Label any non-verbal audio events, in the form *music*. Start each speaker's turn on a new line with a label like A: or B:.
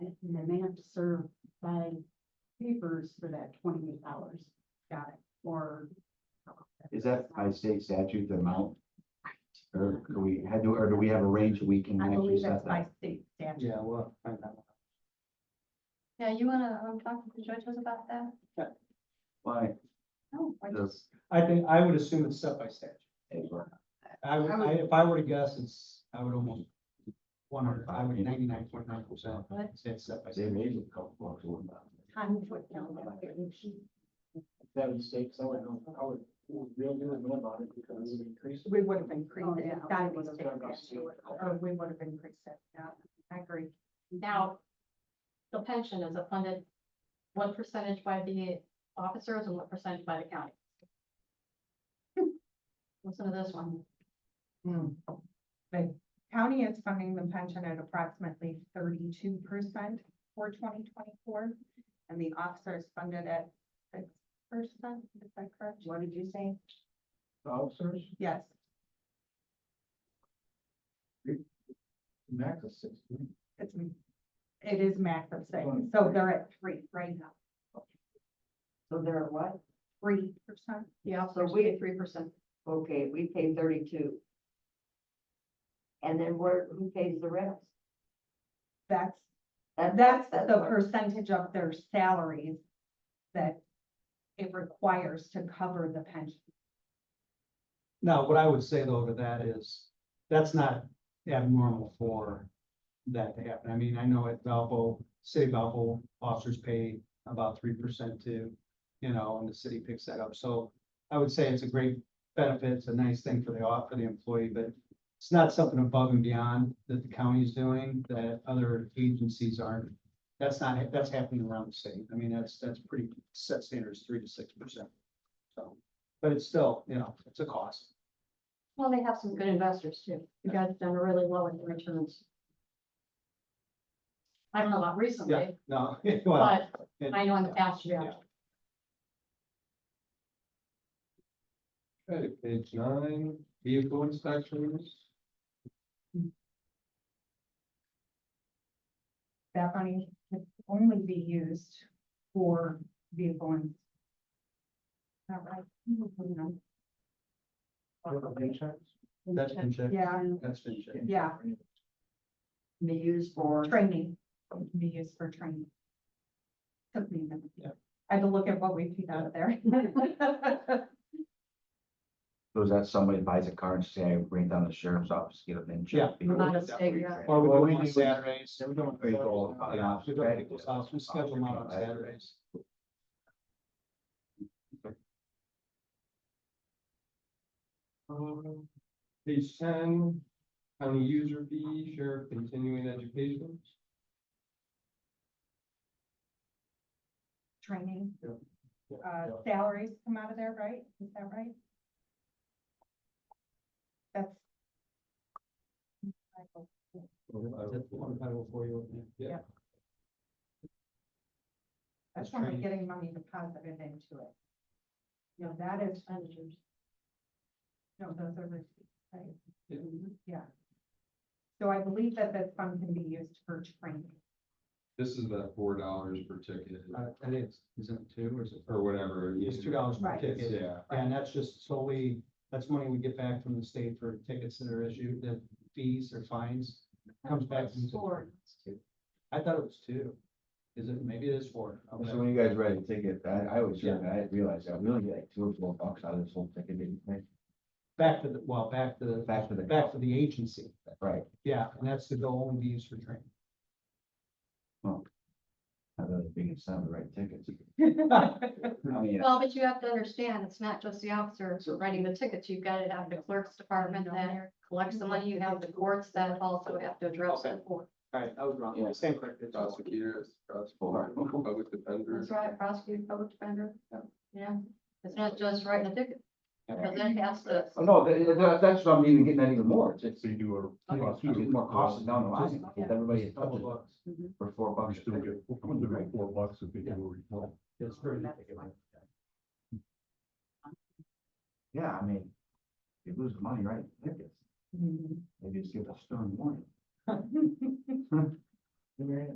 A: time to serve by papers for that twenty-eight hours. Got it, or.
B: Is that by state statute, the amount? Or do we, had to, or do we have a range that we can
A: I
B: actually
A: believe that's
B: set
A: by
B: that?
A: state statute.
C: Yeah, well, I know.
D: Yeah, you wanna, um, talk to the judges about that?
B: Why
D: No, I just-
B: does?
C: I think, I would assume it's set by statute. I would,
A: I
C: I,
A: would-
C: if I were to guess, it's, I would almost one hundred, I would ninety-nine point nine percent,
D: What?
C: say it's set by
B: They
C: statute.
B: raised it a couple bucks, what about it?
A: Time to it down there.
E: that mistake, so I would know, I would, we'll do it about it because we increased.
A: We would have increased
D: Oh,
A: it.
D: yeah.
A: It's gotta be state
E: Yeah.
A: statute,
D: Oh,
A: Or we would have increased it, yeah, I agree.
D: Now, the pension is funded, what percentage by the officers and what percentage by the county? *laughs* Listen to this one.
A: The Hmm. county is funding the pension at approximately thirty-two percent for twenty twenty-four. And the officer is funded at six percent, is that correct? What did you say?
E: Officers,
A: Yes,
E: max of sixteen.
A: it's, it is max of six, so they're at three right now.
F: So they're at what?
A: Three percent?
D: The officers
F: we-
D: pay three percent.
F: Okay, we pay thirty-two. And then where, who pays the rest?
A: That's,
F: That-
A: that's the
F: what-
A: percentage of their salaries that it requires to cover the pension.
C: Now, what I would say though to that is, that's not abnormal for that to happen. I mean, I know at Valpo, city Valpo officers pay about three percent too, you know, and the city picks that up. So I would say it's a great benefit, it's a nice thing for the, off- for the employee, but it's not something above and beyond that the county is doing, that other agencies aren't. That's not, that's happening around the state. I mean, that's, that's pretty set standards, three to six percent. So, but it's still, you know, it's a cost.
D: Well, they have some good investors too. You guys have done really well with the returns. I don't know about
C: Yeah,
D: recently,
C: no, *laughs* well,
D: but
C: it-
D: I know in the past you have.
C: Yeah.
G: Okay, page nine, vehicle inspections.
A: That money can only be used for vehicle and. Not right. Mhm.
C: that's been checked,
A: Yeah,
C: that's been checked.
A: yeah,
F: Be used for,
A: training, It can be used for training. Took me a minute.
C: Yeah.
A: I had to look at what we paid out of
F: *laughs*
A: there.
B: So is that somebody buys a car and say, I ran down the sheriff's office, get a VIN check?
C: Yeah.
D: Not a state, yeah.
C: Or we
B: Well,
C: do
B: we
C: it on
B: do-
C: Saturdays.
B: They were doing very well about the
C: We
B: officers.
C: go to people's house, we schedule them out on Saturdays.
G: Um, Page ten, county user fee, sheriff continuing education.
A: Training.
G: Yeah. Yeah.
A: Uh, salaries come out of there, right? Is that right? That's.
C: That's one title for you.
A: Yeah. That's
C: That's
A: somebody getting
C: training.
A: money deposited into it. You know, that is,
D: Expenditures.
A: no, those are the, right?
G: Yeah.
A: Yeah. So I believe that this fund can be used for training.
G: This is that four dollars per ticket
C: Uh, that is, is it two or is it?
G: or whatever. it
C: It's
G: is.
C: two dollars per
A: Right.
C: ticket.
G: Yeah,
C: And that's just solely, that's money we get back from the state for tickets that are issued, the fees or fines. Comes back. into-
D: Four.
C: I thought it was two. Is it, maybe it is four. Okay.
B: So when you guys write a ticket, I, I was, sure, I didn't realize that, we only get like two or four bucks out of this whole ticket, didn't we?
C: Back to the, well, back to the,
B: Back to the-
C: back to the agency.
B: Right.
C: Yeah, and that's the goal and be used for training. *laughs*
B: I thought it was being assigned the right tickets. I mean,
D: Well, but you have to understand, it's not just the officers writing the tickets, you've got to have the clerk's department that collects the money, you have the courts that also have to address it.
C: All right, I was wrong.
B: Yeah.
C: Stand corrected.
G: prosecutor,
B: Four.
C: *laughs*
G: prosecutor,
C: Oh,
G: public defender.
D: That's right, prosecutor, public defender, yeah, it's not just writing a ticket, because then it has to,
B: Oh, no, that, that- that's what I'm even getting at even more, it's, it's,
H: So you do a.
B: it's getting more costly down the line,
C: Just-
B: if everybody
C: Just double bucks.
B: for four
H: You
B: bucks.
H: still get, we'll do it four bucks if you do a report.
C: It's very-
B: Yeah, I mean, you lose the money, right,
F: Mm-hmm.
B: *laughs* tickets, maybe just give a stern warning.